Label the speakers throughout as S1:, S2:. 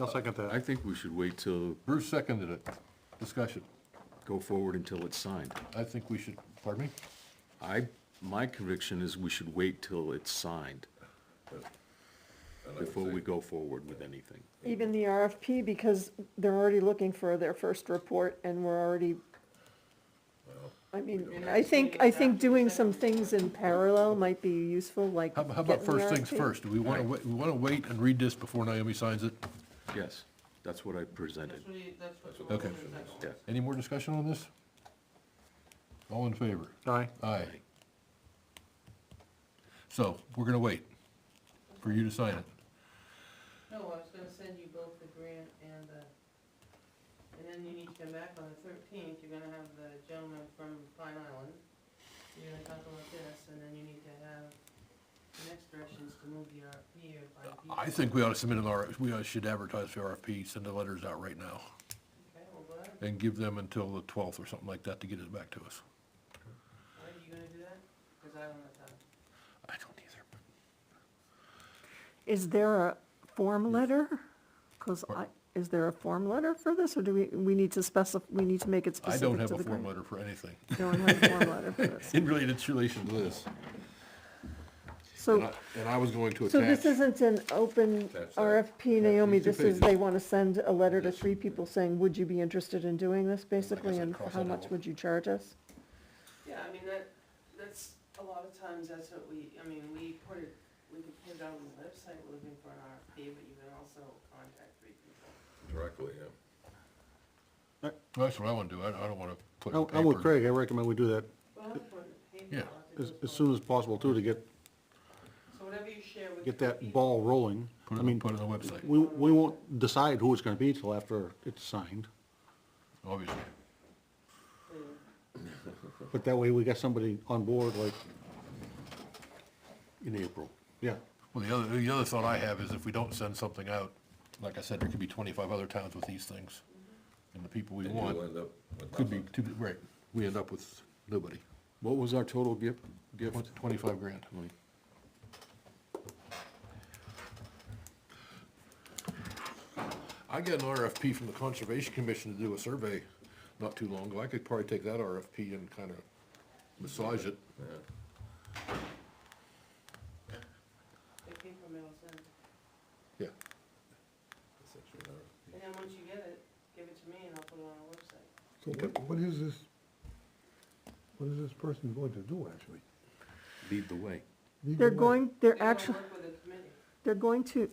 S1: I'll second
S2: I
S1: that.
S2: think we should wait till,
S1: Bruce seconded it. Discussion.
S2: go forward until it's signed.
S1: I think we should, pardon me?
S2: I, my conviction is we should wait till it's signed before we go forward with anything.
S3: Even the RFP, because they're already looking for their first report and we're already, I mean, I think, I think doing some things in parallel might be useful, like.
S1: How how about
S3: getting the
S1: first things
S3: RFP.
S1: first? Do we want
S2: Right.
S1: to, we want to wait and read this before Naomi signs it?
S2: Yes, that's what I presented.
S4: That's what he, that's what.
S1: Okay.
S2: Yeah.
S1: Any more discussion on this? All in favor?
S5: Aye.
S1: Aye. So, we're gonna wait for you to sign it.
S4: No, I was gonna send you both the grant and the, and then you need to come back on the thirteenth, you're gonna have the gentleman from Pine Island. You're gonna talk about this, and then you need to have the next directions to move the RFP or by.
S1: Uh, I think we ought to submit an R, we ought- should advertise for RFP, send the letters out right now,
S4: Okay, well, what,
S1: and give them until the twelfth or something like that to get it back to us.
S4: why are you gonna do that? Cause I don't have time.
S1: I don't either.
S3: Is there a form letter? Cause I, is there a form letter for this, or do we, we need to specify, we need to make it
S1: I
S3: specific
S1: don't
S3: to
S1: have a
S3: the
S1: form
S3: grant?
S1: letter for anything,
S3: Don't have a form letter for this.
S1: in really, it's relation to this. And
S3: So,
S1: I- And I was going to
S3: so this
S1: attach,
S3: isn't an open
S1: Attach that.
S3: RFP, Naomi,
S1: These two
S3: this
S1: pages.
S3: is, they wanna send a letter to three people saying, would you be interested in doing this, basically,
S1: said,
S3: and
S1: cross
S3: how
S1: that
S3: much
S1: out.
S3: would you charge us?
S4: Yeah, I mean, that, that's, a lot of times, that's what we, I mean, we put it, we could put it on the website, we're looking for an RFP, but you can also contact three people.
S6: Directly, yeah.
S1: that's what I wanna do, I, I don't wanna put it
S5: I'm
S1: in
S5: I'm with
S1: paper.
S5: Craig, I recommend we do that
S4: Well, I'll put it in paper,
S1: Yeah.
S4: I'll have to
S5: as,
S4: do it.
S5: as soon as possible too, to get,
S4: So whatever you share with.
S5: get
S4: three
S5: that
S4: people,
S5: ball rolling.
S1: Put
S5: I
S1: it,
S5: mean,
S1: put it on the website,
S5: we, we won't decide who it's gonna be till after it's signed,
S1: obviously.
S4: then
S5: but that way we got somebody on board like in April, yeah.
S1: Well, the other, the other thought I have is if we don't send something out, like I said, there could be twenty-five other towns with these things. And the people we
S6: And you'll
S1: want
S6: end up with
S1: could be,
S6: nothing.
S1: too right, we end up with nobody.
S2: What was our total gift, gift?
S1: Tw- Twenty-five grand. I got an RFP from the Conservation Commission to do a survey not too long ago. I could probably take that RFP and kind of massage it.
S4: It came from Middleton,
S1: Yeah,
S4: and then once you get it, give it to me and I'll put it on our website.
S7: So what, what is this, what is this person going to do, actually?
S2: Lead the way.
S7: Lead
S3: They're
S7: the way.
S3: going,
S4: They
S3: they're
S4: wanna
S3: actually,
S4: Work with a committee.
S3: they're going to,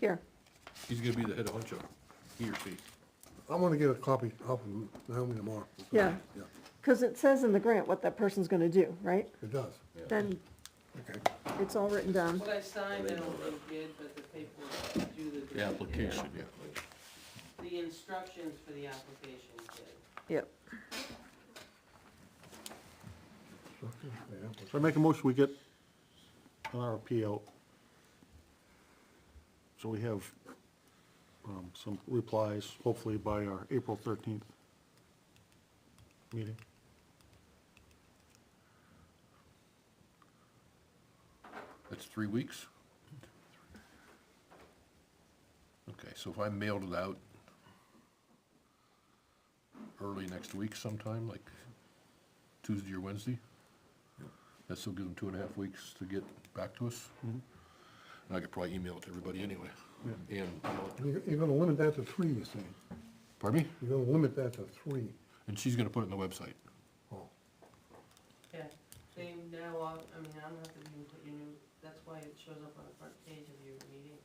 S3: here,
S1: he's gonna be the head honcho, he or she.
S7: I wanna get a copy off of Naomi tomorrow.
S3: Yeah.
S7: Yeah,
S3: because it says in the grant what that person's gonna do, right?
S7: it does,
S3: Then
S7: okay.
S3: it's all written down.
S4: What I signed, I don't think did, but the paperwork to do the.
S2: The
S4: grant did.
S2: application, yeah.
S4: The instructions for the application did.
S3: Yep.
S7: Okay, yeah.
S5: So I make a motion, we get an RFP out. So we have, um, some replies, hopefully by our April thirteenth meeting.
S1: That's three weeks? Okay, so if I mailed it out early next week sometime, like Tuesday or Wednesday, that still gives them two and a half weeks to get back to us? And I could probably email it to everybody anyway. And,
S7: You're, you're gonna limit that to three, you're saying,
S1: pardon me?
S7: you're gonna limit that to three.
S1: And she's gonna put it on the website.
S7: Oh,
S4: Yeah, they now, are- I mean, I don't have to even put your new, that's why it shows up on the front page of your meeting.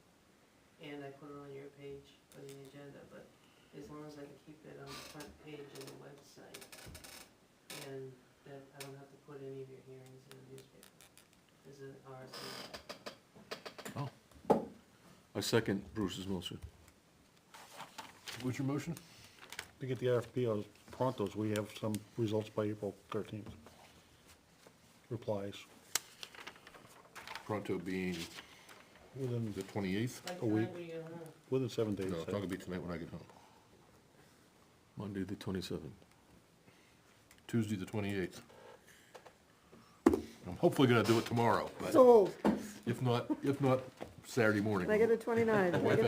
S4: And I put it on your page for the agenda, but as long as I can keep it on the front page of the website, and that I don't have to put any of your hearings in the newspaper, is it RSA?
S2: I second Bruce's motion.
S1: What's your motion?
S5: To get the RFP out as pronto, so we have some results by April thirteenth. Replies.
S1: Pronto being
S5: Within,
S1: the twenty-eighth?
S4: By the
S5: A week.
S4: time we get home,
S5: within seven days.
S1: No, it's not gonna be tonight when I get home.
S2: Monday, the twenty-seventh.
S1: Tuesday, the twenty-eighth. I'm hopefully gonna do it tomorrow, but
S3: Sold,
S1: if not, if not, Saturday morning.
S3: negative twenty-nine, negative